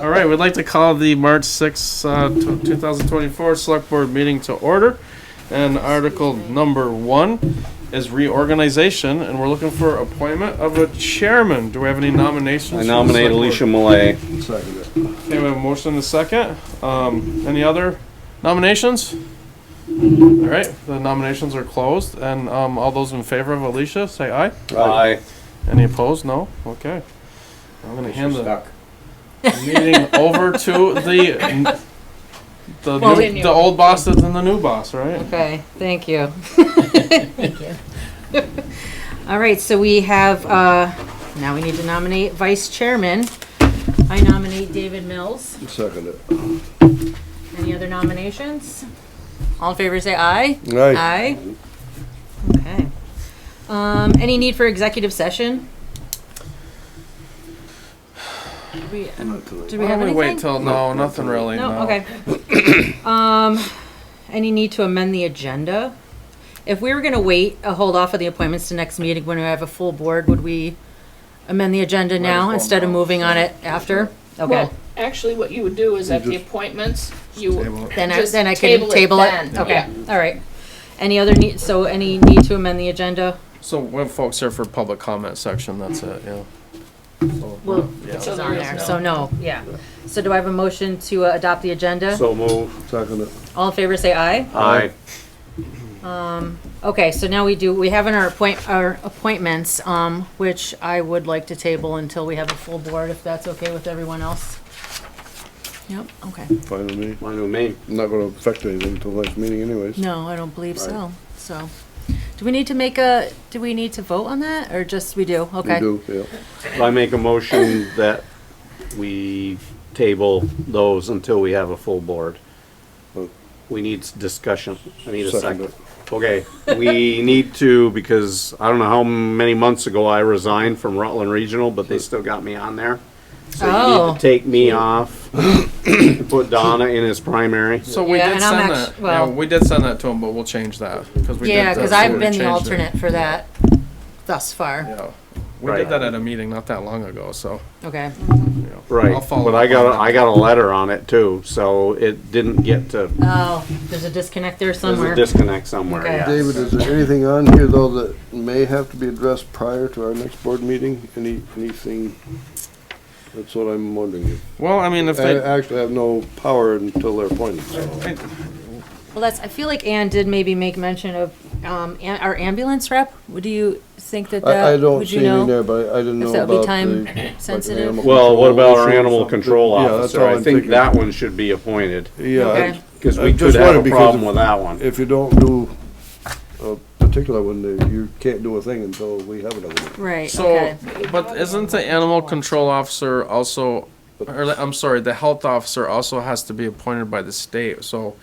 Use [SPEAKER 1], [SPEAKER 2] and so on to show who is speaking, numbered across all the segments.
[SPEAKER 1] All right, we'd like to call the March 6, uh, t- 2024 Select Board meeting to order. And article number one is reorganization, and we're looking for appointment of a chairman. Do we have any nominations?
[SPEAKER 2] I
[SPEAKER 1] for the
[SPEAKER 2] nominate
[SPEAKER 1] Select Board?
[SPEAKER 2] Alicia Malay.
[SPEAKER 3] Second it.
[SPEAKER 1] Okay, we have a motion and a second. Um, any other nominations? All right, the nominations are closed, and, um, all those in favor of Alicia, say aye.
[SPEAKER 2] Aye.
[SPEAKER 1] Any opposed? No? Okay. I'm gonna hand the meeting over to the the, new-
[SPEAKER 4] Well, then you-
[SPEAKER 1] the old boss and the new boss, right?
[SPEAKER 4] Okay, thank you. Thank you. All right, so we have, uh, now we need to nominate vice chairman. I nominate David Mills.
[SPEAKER 3] Second it.
[SPEAKER 4] Any other nominations? All in favor, say aye.
[SPEAKER 3] Aye.
[SPEAKER 4] Aye. Okay. Um, any need for executive session? Do we, do we
[SPEAKER 1] Why
[SPEAKER 4] have
[SPEAKER 1] don't we wait
[SPEAKER 4] anything?
[SPEAKER 1] till, no, nothing really,
[SPEAKER 4] No, okay. Um, any need to amend the agenda? If we were gonna wait, uh, hold off of the appointments to next meeting when we have a full board, would we amend the agenda now
[SPEAKER 1] well
[SPEAKER 4] instead of
[SPEAKER 1] now,
[SPEAKER 4] moving on it after? Okay,
[SPEAKER 5] Well, actually, what you would do is at the appointments, you,
[SPEAKER 4] then I,
[SPEAKER 5] just
[SPEAKER 4] then I
[SPEAKER 5] table
[SPEAKER 4] can
[SPEAKER 5] it
[SPEAKER 4] table it,
[SPEAKER 5] then,
[SPEAKER 4] okay, all right. Any other need, so any need to amend the agenda?
[SPEAKER 1] So when folks here for public comment section, that's it, yeah. So,
[SPEAKER 4] Well,
[SPEAKER 1] yeah.
[SPEAKER 4] It's
[SPEAKER 5] there
[SPEAKER 4] on
[SPEAKER 5] is
[SPEAKER 4] there,
[SPEAKER 5] no.
[SPEAKER 4] so no, yeah. So do I have a motion to uh, adopt the agenda?
[SPEAKER 2] So move.
[SPEAKER 3] Second it.
[SPEAKER 4] All in favor, say aye.
[SPEAKER 2] Aye.
[SPEAKER 4] Okay, so now we do, we have in our appoint, our appointments, um, which I would like to table until we have a full board, if that's okay with everyone else. Yep, okay.
[SPEAKER 3] Fine with me.
[SPEAKER 2] Mine and me.
[SPEAKER 3] Not gonna affect anything until next meeting anyways.
[SPEAKER 4] No, I don't believe so, so. Do we need to make a, do we need to vote on that, or just, we do,
[SPEAKER 3] We
[SPEAKER 4] okay?
[SPEAKER 3] do, yeah.
[SPEAKER 2] I make a motion that we table those until we have a full board. We need s- discussion. I need a
[SPEAKER 3] Second
[SPEAKER 2] second. Okay, we need to, because I don't know how many months ago I resigned from Rutland Regional, but they still got me on there. So you need
[SPEAKER 4] Oh.
[SPEAKER 2] to take me off, put Donna in his primary.
[SPEAKER 1] So we
[SPEAKER 4] Yeah,
[SPEAKER 1] did
[SPEAKER 4] and I'm
[SPEAKER 1] send
[SPEAKER 4] actu-
[SPEAKER 1] that, yeah,
[SPEAKER 4] well-
[SPEAKER 1] we did send that to him, but we'll change that, cause we did.
[SPEAKER 4] Yeah, cause
[SPEAKER 1] that, so
[SPEAKER 4] I've
[SPEAKER 1] we
[SPEAKER 4] been the
[SPEAKER 1] changed it.
[SPEAKER 4] alternate for that thus far,
[SPEAKER 1] Yeah, we
[SPEAKER 2] Right.
[SPEAKER 1] did that at a meeting not that long ago, so,
[SPEAKER 4] okay?
[SPEAKER 1] you know.
[SPEAKER 2] Right,
[SPEAKER 1] I'll follow
[SPEAKER 2] but
[SPEAKER 1] up
[SPEAKER 2] I
[SPEAKER 1] on
[SPEAKER 2] got,
[SPEAKER 1] that.
[SPEAKER 2] a- I got a letter on it too, so it didn't get to,
[SPEAKER 4] Oh, there's a disconnect there
[SPEAKER 2] there's a
[SPEAKER 4] somewhere.
[SPEAKER 2] disconnect somewhere,
[SPEAKER 4] Okay.
[SPEAKER 2] yeah.
[SPEAKER 3] David, is there anything on here though that may have to be addressed prior to our next board meeting? Any, anything? That's what I'm wondering.
[SPEAKER 1] Well, I mean, if
[SPEAKER 3] I
[SPEAKER 2] Uh,
[SPEAKER 1] they,
[SPEAKER 3] actually have no power until they're appointed, so.
[SPEAKER 4] Well, that's, I feel like Ann did maybe make mention of, um, an- our ambulance rep, would you think that that,
[SPEAKER 3] I, I don't
[SPEAKER 4] would you
[SPEAKER 3] see any
[SPEAKER 4] know?
[SPEAKER 3] there, but I I didn't know
[SPEAKER 4] If
[SPEAKER 3] about
[SPEAKER 4] that
[SPEAKER 3] the.
[SPEAKER 4] would be time
[SPEAKER 3] like an
[SPEAKER 4] sensitive?
[SPEAKER 3] animal
[SPEAKER 2] Well, what about our
[SPEAKER 3] issue or
[SPEAKER 2] animal
[SPEAKER 3] something.
[SPEAKER 2] control
[SPEAKER 3] Yeah, that's
[SPEAKER 2] officer?
[SPEAKER 3] all
[SPEAKER 2] I
[SPEAKER 3] I'm
[SPEAKER 2] think
[SPEAKER 3] thinking.
[SPEAKER 2] that one should be appointed,
[SPEAKER 3] Yeah. I-
[SPEAKER 4] Okay.
[SPEAKER 2] because
[SPEAKER 3] I
[SPEAKER 2] we could
[SPEAKER 3] just
[SPEAKER 2] have
[SPEAKER 3] wondered
[SPEAKER 2] a
[SPEAKER 3] because
[SPEAKER 2] problem
[SPEAKER 3] if-
[SPEAKER 2] with that one.
[SPEAKER 3] If you don't do a particular one, then you can't do a thing until we have another one.
[SPEAKER 4] Right,
[SPEAKER 1] so,
[SPEAKER 4] okay.
[SPEAKER 1] but isn't the animal control officer also, or the- I'm sorry, the health officer also has to be appointed by the state, so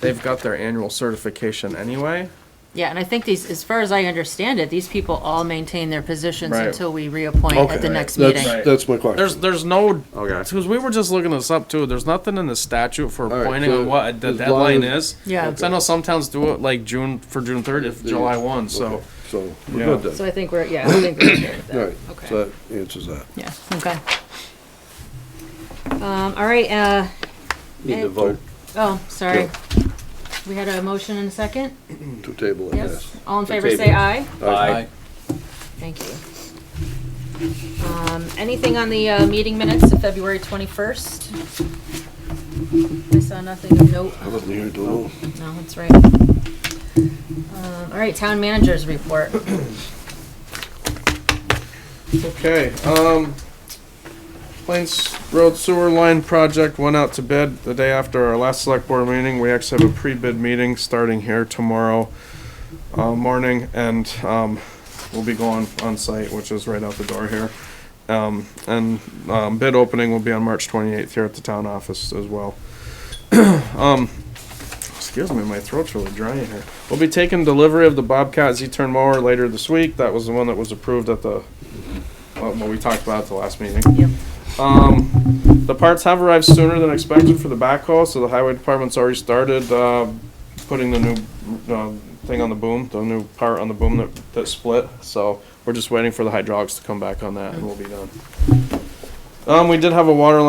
[SPEAKER 1] they've got their annual certification anyway?
[SPEAKER 4] Yeah, and I think these, as far as I understand it, these people all maintain their positions
[SPEAKER 1] Right.
[SPEAKER 4] until we reappoint
[SPEAKER 3] Okay.
[SPEAKER 4] at the next
[SPEAKER 3] That's-
[SPEAKER 4] meeting.
[SPEAKER 1] Right.
[SPEAKER 3] That's my question.
[SPEAKER 1] There's, there's no,
[SPEAKER 2] Okay,
[SPEAKER 1] because we were just looking this up too, there's nothing in the statute for
[SPEAKER 3] right,
[SPEAKER 1] appointing
[SPEAKER 3] so
[SPEAKER 1] on what the
[SPEAKER 3] as long
[SPEAKER 1] deadline
[SPEAKER 3] as-
[SPEAKER 1] is.
[SPEAKER 4] Yeah.
[SPEAKER 1] So I know some towns do it like June, for June thirtieth, July one, so,
[SPEAKER 3] So, we're
[SPEAKER 1] Yeah.
[SPEAKER 3] good then.
[SPEAKER 4] So I think we're, yeah, I think we're okay with
[SPEAKER 3] All
[SPEAKER 4] that.
[SPEAKER 3] right, so that answers that.
[SPEAKER 4] Yeah, okay. Um, all right, uh,
[SPEAKER 2] need to vote.
[SPEAKER 4] oh, sorry. We had a motion and a second?
[SPEAKER 3] To table it, yes.
[SPEAKER 4] Yes? All in favor, say
[SPEAKER 2] table.
[SPEAKER 4] aye.
[SPEAKER 2] Aye.
[SPEAKER 4] Thank you. Um, anything on the, uh, meeting minutes of February twenty-first? I saw nothing of note.
[SPEAKER 3] I wasn't here till now.
[SPEAKER 4] No, that's right. Um, all right, town managers report.
[SPEAKER 1] Okay, um, Plains Road Sewer Line Project went out to bid the day after our last select board meeting. We actually have a pre-bid meeting starting here tomorrow, uh, morning, and, um, we'll be going on site, which is right out the door here. Um, and, um, bid opening will be on March twenty-eighth here at the town office as well. Um, excuse me, my throat's really dry in here. We'll be taking delivery of the Bobcat Z-turn mower later this week. That was the one that was approved at the well, what we talked about at the last meeting.
[SPEAKER 4] Yep.
[SPEAKER 1] Um, the parts have arrived sooner than expected for the backhaul, so the highway department's already started, uh, putting the new, uh, thing on the boom, the new part on the boom that, that split, so we're just waiting for the hydraulics to come back on that and we'll be done. Um, we did have a water line